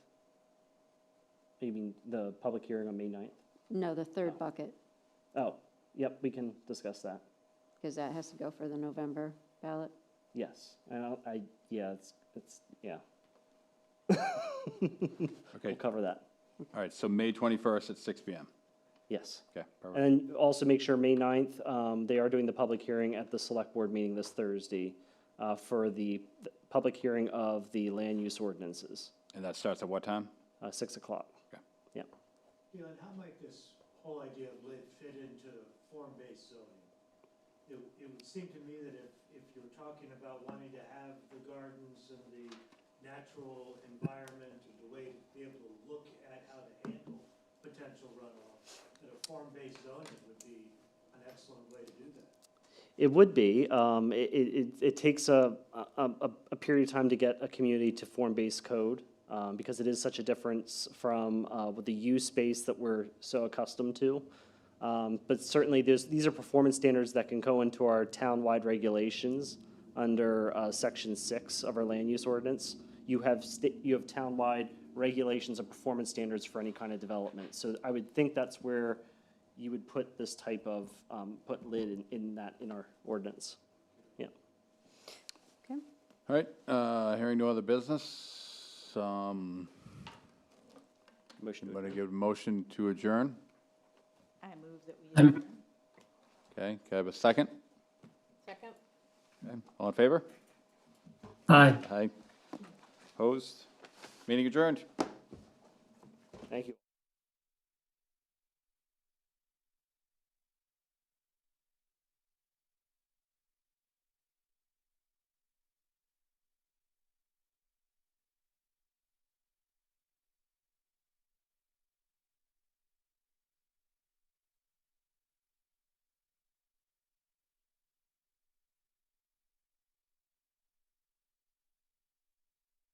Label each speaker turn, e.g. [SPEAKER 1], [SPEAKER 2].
[SPEAKER 1] You mean the public hearing on May 9th?
[SPEAKER 2] No, the third bucket,
[SPEAKER 1] Oh, yep, we can discuss that.
[SPEAKER 2] because that has to go for the November ballot.
[SPEAKER 1] Yes, I, don't- I, yeah, it's, it's, yeah,
[SPEAKER 3] Okay,
[SPEAKER 1] we'll cover that.
[SPEAKER 3] all right, so May 21st at six PM.
[SPEAKER 1] Yes.
[SPEAKER 3] Okay, perfect.
[SPEAKER 1] And then also make sure, May 9th, um, they are doing the public hearing at the select board meeting this Thursday uh, for the the public hearing of the land use ordinances,
[SPEAKER 3] And that starts at what time?
[SPEAKER 1] uh, 6 o'clock.
[SPEAKER 3] Okay.
[SPEAKER 1] Yep.
[SPEAKER 4] You know, and how might this whole idea of live fit into form-based zoning? It, it would seem to me that if, if you're talking about wanting to have the gardens and the natural environment and the way to be able to look at how to handle potential runoff, that a form-based zoning would be an excellent way to do that.
[SPEAKER 1] It would be. Um, it, it, it- it takes a, a, a- a period of time to get a community to form-based code, um, because it is such a difference from, uh, with the use base that we're so accustomed to. Um, but certainly, there's, these are performance standards that can go into our town-wide regulations under, uh, section six of our land use ordinance. You have sta- you have town-wide regulations and performance standards for any kind of development. So I would think that's where you would put this type of, um, put lid in, in that, in our ordinance. Yeah.
[SPEAKER 2] Okay,
[SPEAKER 3] All right, uh, hearing no other business, um,
[SPEAKER 1] Motion to
[SPEAKER 3] anybody give a motion to adjourn?
[SPEAKER 5] I move that we.
[SPEAKER 3] Okay, can I have a second?
[SPEAKER 5] Second?
[SPEAKER 3] Okay, All in favor?
[SPEAKER 6] Aye.
[SPEAKER 3] Aye. Opposed? Meeting adjourned.
[SPEAKER 1] Thank you.